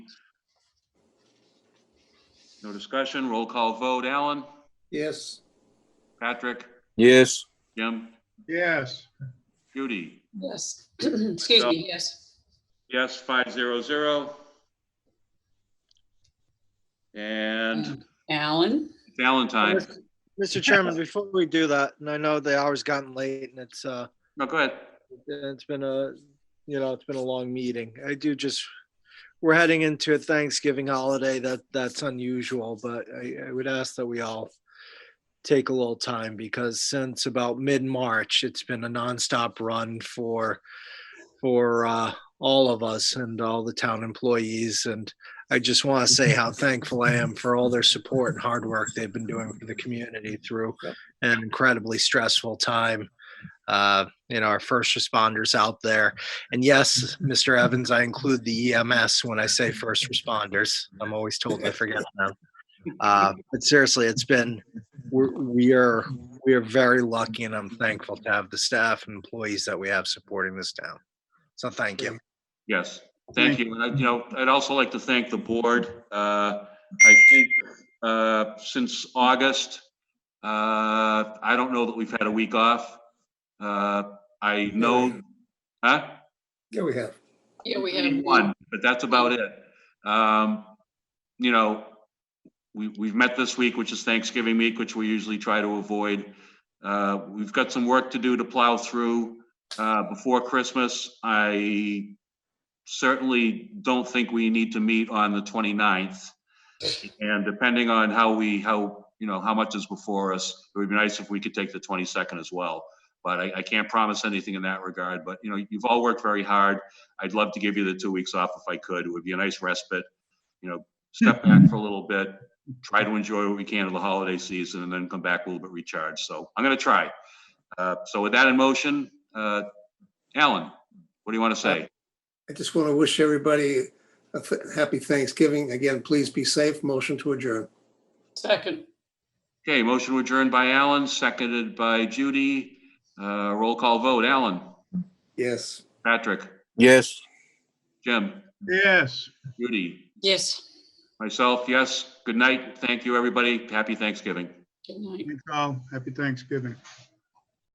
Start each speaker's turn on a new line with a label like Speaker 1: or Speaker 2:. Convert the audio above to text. Speaker 1: No discussion, roll call vote. Alan?
Speaker 2: Yes.
Speaker 1: Patrick?
Speaker 3: Yes.
Speaker 1: Jim?
Speaker 4: yes,
Speaker 1: Judy?
Speaker 5: Yes, excuse me, yes.
Speaker 1: Yes, five zero zero. And
Speaker 5: Alan?
Speaker 1: Valentine,
Speaker 6: Mr. Chairman, before we do that, and I know the hour's gotten late and it's, uh,
Speaker 1: no, go ahead.
Speaker 6: it's been a, you know, it's been a long meeting. I do just, we're heading into a Thanksgiving holiday that, that's unusual, but I, I would ask that we all take a little time because since about mid-March, it's been a nonstop run for, for, uh, all of us and all the town employees. And I just want to say how thankful I am for all their support and hard work they've been doing for the community through an incredibly stressful time uh, you know, our first responders out there. And yes, Mr. Evans, I include the EMS when I say first responders. I'm always told I forget them. Uh, but seriously, it's been we're, we are we are very lucky, and I'm thankful to have the staff and employees that we have supporting this town. So thank you.
Speaker 1: Yes, thank you. And I, you know, I'd also like to thank the board. Uh, I think, uh, since August, uh, I don't know that we've had a week off. Uh, I know, huh?
Speaker 2: Yeah, we have.
Speaker 5: Yeah, we have one.
Speaker 1: One, but that's about it. Um, you know, we, we've met this week, which is Thanksgiving week, which we usually try to avoid. Uh, we've got some work to do to plow through, uh, before Christmas. I certainly don't think we need to meet on the 29th. And depending on how we, how, you know, how much is before us, it would be nice if we could take the 22nd as well. But I, I can't promise anything in that regard, but you know, you've all worked very hard. I'd love to give you the two weeks off if I could. It would be a nice respite. You know, step back for a little bit, try to enjoy what we can of the holiday season, and then come back a little bit recharged. So I'm going to try. Uh, So with that in motion, uh, Alan, what do you want to say?
Speaker 2: I just want to wish everybody a th- happy Thanksgiving. Again, please be safe. Motion to adjourn.
Speaker 5: Second,
Speaker 1: Okay, motion adjourned by Alan, seconded by Judy. Uh, Roll call vote, Alan,
Speaker 2: Yes.
Speaker 1: Patrick,
Speaker 3: Yes.
Speaker 1: Jim,
Speaker 4: yes.
Speaker 1: Judy,
Speaker 5: yes.
Speaker 1: myself, yes. Good night. Thank you, everybody. Happy Thanksgiving.
Speaker 5: Good night.
Speaker 4: Thanks all. Happy Thanksgiving.